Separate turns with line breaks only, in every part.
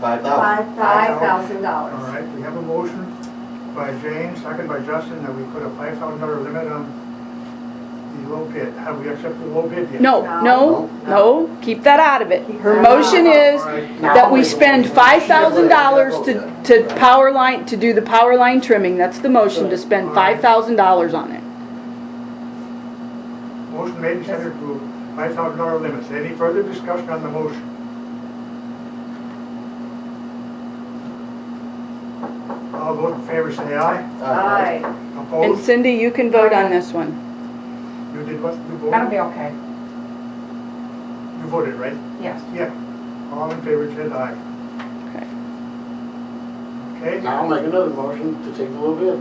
five thousand.
Five,
Five
five
thousand.
thousand
All
dollars.
right, we have a motion by James, second by Justin, that we put a five thousand dollar limit on the low bid. Have we accepted the low bid yet?
No, no, no, keep that out of it. Her motion is
All right.
that we spend five thousand dollars to, to power line, to do the power line trimming. That's the motion, to spend five thousand dollars on it.
Motion made and seconded to five thousand dollar limits. Any further discussion on the motion? All those in favor say
Oh,
aye.
Aye.
Aye.
And
Opposed?
Cindy, you can vote on this one.
You did what? You
That'll be
voted?
okay,
You voted, right?
yes.
Yeah. All in favor said aye.
Okay.
Okay?
Now I'll make another motion to take a little bit.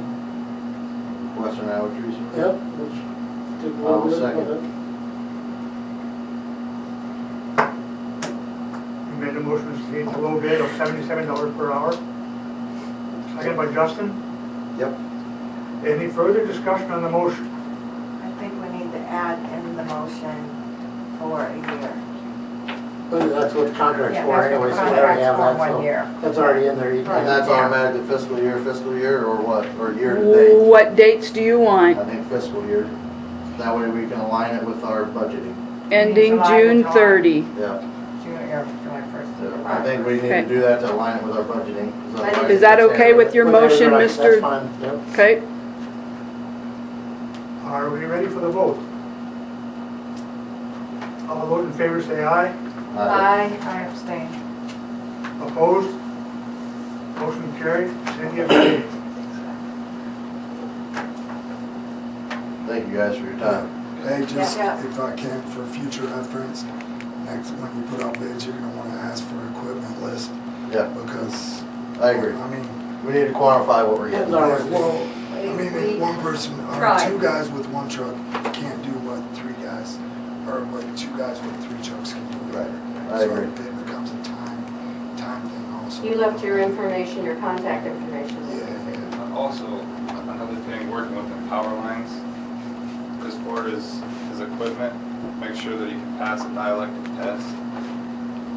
Western Iowa Trees. and Roots.
Yep, let's take a little
I'll
bit.
second.
You made a motion to change the low bid of seventy-seven dollars per hour. Second by Justin.
Yep.
Any further discussion on the motion?
I think we need to add in the motion for a year.
But That's what the contract's
Yeah,
for
that's
anyway,
what
so we already
contracts
have
for
that,
one year.
so that's already in there. You
And
can-
that's automatically fiscal year, fiscal year, or what, or year to date?
What dates do you
I
want?
think fiscal year. That way we can align it with our budgeting.
Ending
July to
June
July.
thirty.
Yeah,
June, or July first.
so I think we need to
Okay.
do that to align it with our budgeting. 'cause
Is
otherwise
that
it's
okay with
handled.
your
Whatever,
motion,
right,
Mr.
That's fine, yep.
Okay,
Are we ready for the vote? All those in favor say aye.
Aye.
Aye.
I abstain.
Opposed? Motion carried. Cindy abstained.
Thank you guys for your time.
Hey, just
Yeah.
if I can, for future reference, next, when you put out bids, you're gonna wanna ask for equipment list
Yeah,
because.
I agree.
I mean,
We need to quantify what we're getting.
No.
yeah, well, I mean,
We-
if one person, or
Try.
two guys with one truck can't do what three guys, or what two guys with three trucks can do.
Right. I
So
agree.
it becomes a time, time thing also.
You left your information, your contact information.
Yeah, yeah.
Also, another thing, working with the power lines, Chris Ford is, his equipment, make sure that he can pass a dielectric test.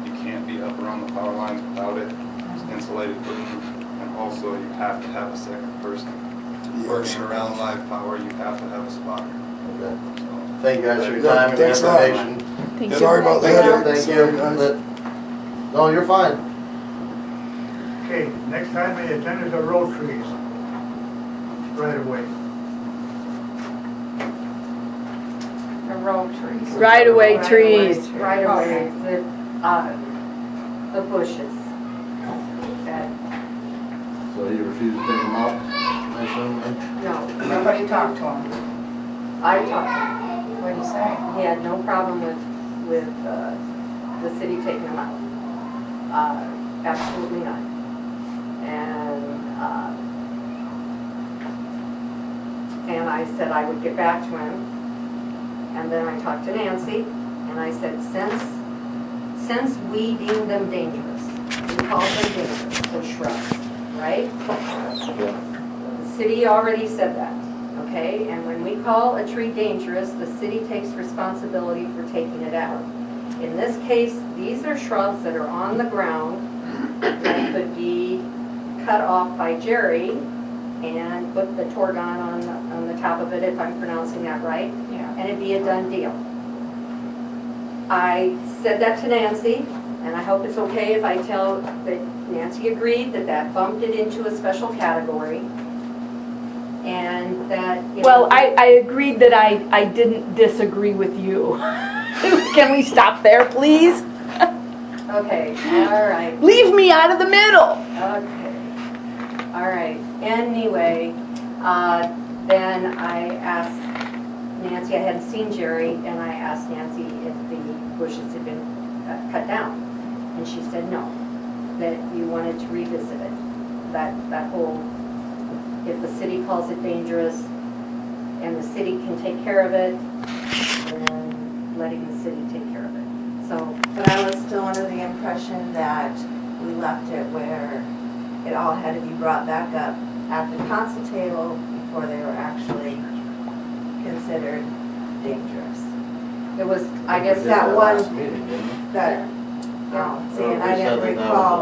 You can't be up around the power lines without it, It's insulated equipment, and also you have to have a second person.
Yeah,
Working
sure.
around live power, you have to have a spotter,
Okay.
so.
Thank you guys for your time and your
Thanks a lot.
information.
thank you.
Sorry about the headache.
Thank
Sorry,
you.
guys.
Let- No, you're fine.
Okay, next time on the agenda is the road trees. Right away.
The road trees.
Right away
Right
trees.
away, Right away, the, uh, the bushes. That,
So you refuse to pick them up, I assume, then?
no,
Nobody talked to him.
I talked,
What'd he say?
he had no problem with, with, uh, the city taking them out. Uh, absolutely not. And, uh, and I said I would get back to him. And then I talked to Nancy, and I said, since, since we deemed them dangerous, we called them dangerous, so shrubs, right? The city already said that, okay? And when we call a tree dangerous, the city takes responsibility for taking it out. In this case, these are shrubs that are on the ground that could be cut off by Jerry and put the torgon on, the- on the top of it, if I'm pronouncing that right
Yeah.
and it'd be a done deal. I said that to Nancy, and I hope it's okay if I tell that Nancy agreed that that bumped it into a special category, and that. you know,
Well, I, I agreed that I, I didn't disagree with you. Can we stop there, please?
Okay, all right,
Leave me out of the middle.
okay, all right. Anyway, uh, then I asked Nancy, I hadn't seen Jerry, and I asked Nancy if the bushes had been uh, cut down. And she said no, that you wanted to revisit it. That, that whole, if the city calls it dangerous and the city can take care of it, then letting the city take care of it. So
But I was still under the impression that we left it where it all had to be brought back up at the council table before they were actually considered dangerous.
it was, I
We
guess,
did
that
last
was-
Meeting, didn't we?
That,
Yeah.
um, see, and
Or
I
we said that that
didn't
was a-
recall